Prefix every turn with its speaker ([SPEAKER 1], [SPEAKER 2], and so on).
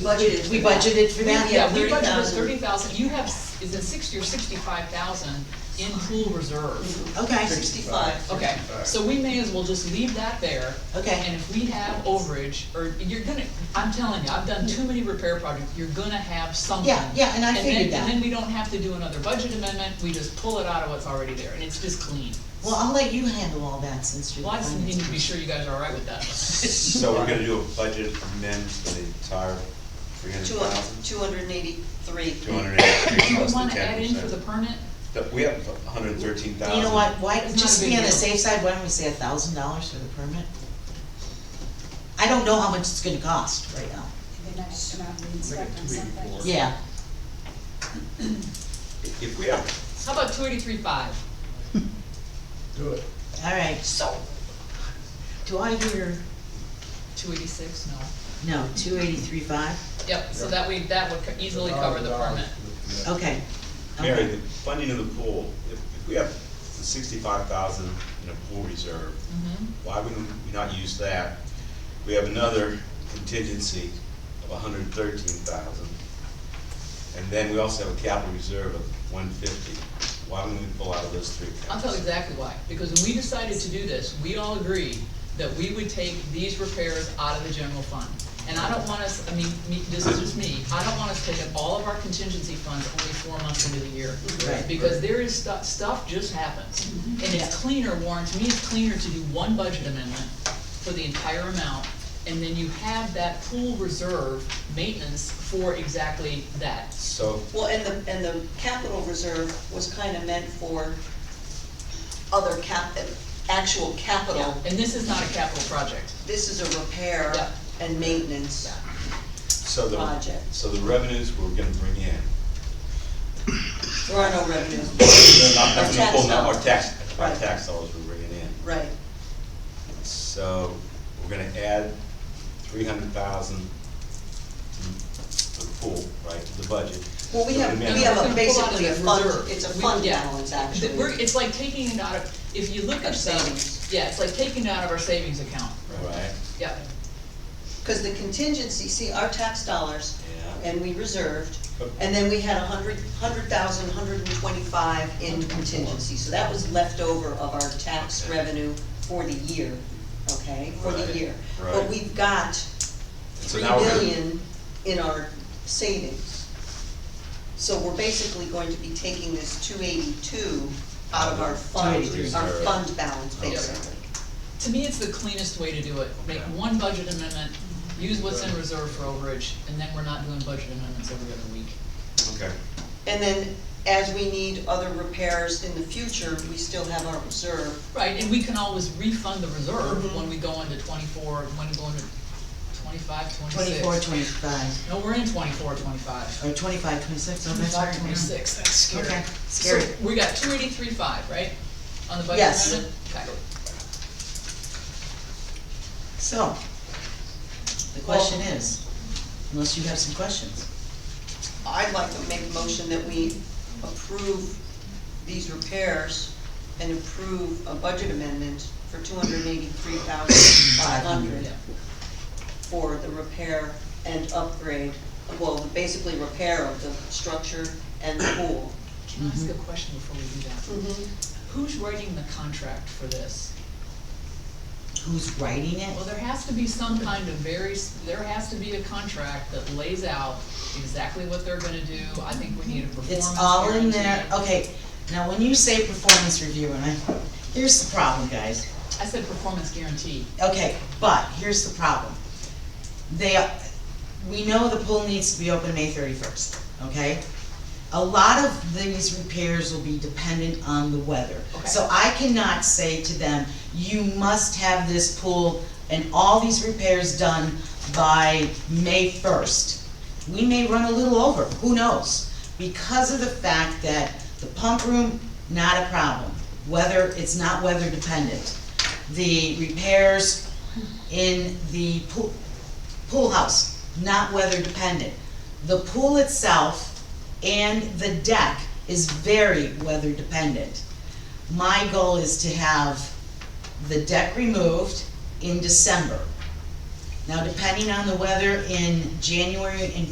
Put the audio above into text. [SPEAKER 1] budgeted for
[SPEAKER 2] We
[SPEAKER 1] that.
[SPEAKER 2] budgeted for that, yeah,
[SPEAKER 3] we
[SPEAKER 2] thirty
[SPEAKER 3] budgeted thirty
[SPEAKER 2] thousand.
[SPEAKER 3] thousand, you have, s- is it sixty or sixty-five thousand in pool reserve?
[SPEAKER 2] Okay,
[SPEAKER 1] Sixty-five.
[SPEAKER 3] Okay, so we may as well just leave that there. And
[SPEAKER 2] okay,
[SPEAKER 3] if we have overage, or you're gonna, I'm telling you, I've done too many repair projects, you're gonna have something.
[SPEAKER 2] Yeah, yeah, and I
[SPEAKER 3] then-
[SPEAKER 2] figured that.
[SPEAKER 3] And then we don't have to do another budget amendment, we just pull it out of what's already there, and it's just clean.
[SPEAKER 2] well, I'll let you handle all that since you're.
[SPEAKER 3] Well, I just
[SPEAKER 2] the
[SPEAKER 3] need to be
[SPEAKER 2] finance
[SPEAKER 3] sure you guys are all right with that.
[SPEAKER 4] So we're gonna do a budget amend for the entire three hundred
[SPEAKER 1] Two
[SPEAKER 4] thousand?
[SPEAKER 1] hundred and eighty-three.
[SPEAKER 4] Two hundred eighty-three
[SPEAKER 3] Do you
[SPEAKER 4] plus the
[SPEAKER 3] wanna add
[SPEAKER 4] ten
[SPEAKER 3] in for the
[SPEAKER 4] percent.
[SPEAKER 3] permit?
[SPEAKER 4] We have hundred and thirteen
[SPEAKER 2] man.
[SPEAKER 4] thousand.
[SPEAKER 2] You know what, why,
[SPEAKER 3] It's not
[SPEAKER 2] just
[SPEAKER 3] a big
[SPEAKER 2] be on the
[SPEAKER 3] deal.
[SPEAKER 2] safe side, why don't we say a thousand dollars for the permit? I don't know how much it's gonna cost right now.
[SPEAKER 5] They might have to come out and inspect on
[SPEAKER 6] Make it two
[SPEAKER 5] something.
[SPEAKER 6] eighty-four.
[SPEAKER 2] Yeah,
[SPEAKER 4] If we have,
[SPEAKER 3] How about two eighty-three five?
[SPEAKER 6] Do it.
[SPEAKER 2] all right, so, do I hear,
[SPEAKER 3] Two eighty-six, no.
[SPEAKER 2] no, two eighty-three five?
[SPEAKER 3] Yep, so that we, that would co- easily cover the
[SPEAKER 6] $1,000
[SPEAKER 3] permit.
[SPEAKER 6] for the-
[SPEAKER 2] Okay.
[SPEAKER 4] Mary,
[SPEAKER 2] okay.
[SPEAKER 4] the funding of the pool, if, if we have sixty-five thousand in a pool reserve,
[SPEAKER 3] Mhm.
[SPEAKER 4] why wouldn't we not use that? We have another contingency of hundred and thirteen thousand. And then we also have a capital reserve of one fifty. Why wouldn't we pull out of those three accounts?
[SPEAKER 3] I'll tell you exactly why, because when we decided to do this, we all agreed that we would take these repairs out of the general fund. And I don't want us, I mean, me, this is just me, I don't want us taking all of our contingency funds only four months into the year.
[SPEAKER 2] Right.
[SPEAKER 3] Because there is stuff, stuff just happens, and
[SPEAKER 2] Yeah.
[SPEAKER 3] it's cleaner, Warren, to me, it's cleaner to do one budget amendment for the entire amount, and then you have that pool reserve maintenance for exactly that.
[SPEAKER 4] So,
[SPEAKER 1] Well, and the, and the capital reserve was kinda meant for other cap, actual
[SPEAKER 3] Yeah,
[SPEAKER 1] capital.
[SPEAKER 3] and this is not a capital project.
[SPEAKER 1] This is a repair
[SPEAKER 3] Yeah.
[SPEAKER 1] and maintenance.
[SPEAKER 4] so the,
[SPEAKER 1] Project.
[SPEAKER 4] so the revenues we're gonna bring in,
[SPEAKER 1] There are no revenues,
[SPEAKER 4] They're not-
[SPEAKER 1] Our
[SPEAKER 4] that's gonna pull
[SPEAKER 1] tax
[SPEAKER 4] down our
[SPEAKER 1] dollars.
[SPEAKER 4] tax, our
[SPEAKER 1] Right.
[SPEAKER 4] tax dollars we're bringing in.
[SPEAKER 1] right.
[SPEAKER 4] So, we're gonna add three hundred thousand to the pool, right, to the budget.
[SPEAKER 1] Well, we
[SPEAKER 4] So
[SPEAKER 1] have-
[SPEAKER 4] amend
[SPEAKER 1] we
[SPEAKER 4] it.
[SPEAKER 1] have
[SPEAKER 3] It's
[SPEAKER 1] a-
[SPEAKER 3] gonna
[SPEAKER 1] basically
[SPEAKER 3] pull out
[SPEAKER 1] a
[SPEAKER 3] of the
[SPEAKER 1] fund-
[SPEAKER 3] reserve.
[SPEAKER 1] it's a
[SPEAKER 3] We-
[SPEAKER 1] fund
[SPEAKER 3] yeah.
[SPEAKER 1] balance, actually.
[SPEAKER 3] Th- We're, it's like taking it out of, if you look
[SPEAKER 1] Our
[SPEAKER 3] at
[SPEAKER 1] savings.
[SPEAKER 3] savings, yeah, it's like taking it out of our savings account,
[SPEAKER 4] Right,
[SPEAKER 3] yeah.
[SPEAKER 1] Cause the contingency, see, our tax dollars,
[SPEAKER 4] yeah.
[SPEAKER 1] and we reserved, and then we had a hundred, hundred thousand, hundred and twenty-five in contingency, so that was left over of our tax
[SPEAKER 4] Okay.
[SPEAKER 1] revenue for the year, okay, for
[SPEAKER 4] Right,
[SPEAKER 1] the year. But
[SPEAKER 4] right.
[SPEAKER 1] we've got
[SPEAKER 4] So
[SPEAKER 1] three
[SPEAKER 4] now we're gonna-
[SPEAKER 1] billion in our savings. So we're basically going to be taking this two eighty-two out of our fund, our
[SPEAKER 4] 282.
[SPEAKER 1] fund balance,
[SPEAKER 4] Okay.
[SPEAKER 1] basically.
[SPEAKER 3] To me, it's the cleanest way to do it, make
[SPEAKER 4] Okay.
[SPEAKER 3] one budget amendment, use what's in reserve for overage, and then we're not doing budget amendments every other week.
[SPEAKER 4] Okay,
[SPEAKER 1] And then, as we need other repairs in the future, we still have our reserve,
[SPEAKER 3] Right, and we can always refund the reserve
[SPEAKER 1] Mhm.
[SPEAKER 3] when we go into twenty-four, when we go into twenty-five, twenty-six.
[SPEAKER 2] Twenty-four, twenty-five,
[SPEAKER 3] No, we're in twenty-four, twenty-five.
[SPEAKER 2] or twenty-five, twenty-six, oh, that's all right.
[SPEAKER 3] Twenty-five, twenty-six, that's
[SPEAKER 2] yeah.
[SPEAKER 3] scary.
[SPEAKER 2] Okay,
[SPEAKER 3] So
[SPEAKER 2] scary.
[SPEAKER 3] we got two eighty-three five, right? On the budget
[SPEAKER 2] Yes.
[SPEAKER 3] amendment? Okay.
[SPEAKER 2] So, the
[SPEAKER 1] Well-
[SPEAKER 2] question is, unless you have some questions,
[SPEAKER 1] I'd like to make a motion that we approve these repairs and approve a budget amendment for two hundred and eighty-three thousand five hundred
[SPEAKER 3] Yeah.
[SPEAKER 1] for the repair and upgrade, well, basically repair of the structure and the pool.
[SPEAKER 2] Mm-hmm.
[SPEAKER 3] Can I ask a question before we do that? Who's writing the contract for this?
[SPEAKER 2] who's writing
[SPEAKER 3] Well,
[SPEAKER 2] it?
[SPEAKER 3] there has to be some kind of very, s- there has to be a contract that lays out exactly what they're gonna do. I think we need a performance
[SPEAKER 2] It's all in
[SPEAKER 3] guarantee.
[SPEAKER 2] there, okay, now when you say performance review, and I, here's the problem, guys,
[SPEAKER 3] I said performance guarantee.
[SPEAKER 2] okay, but here's the problem. They, we know the pool needs to be open May thirty-first, okay? A lot of these repairs will be dependent on the weather.
[SPEAKER 3] Okay.
[SPEAKER 2] So I cannot say to them, you must have this pool and all these repairs done by May first. We may run a little over, who knows? Because of the fact that the pump room, not a problem. Weather, it's not weather dependent. The repairs in the pool, pool house, not weather dependent. The pool itself and the deck is very weather dependent. My goal is to have the deck removed in December. Now, depending on the weather in January and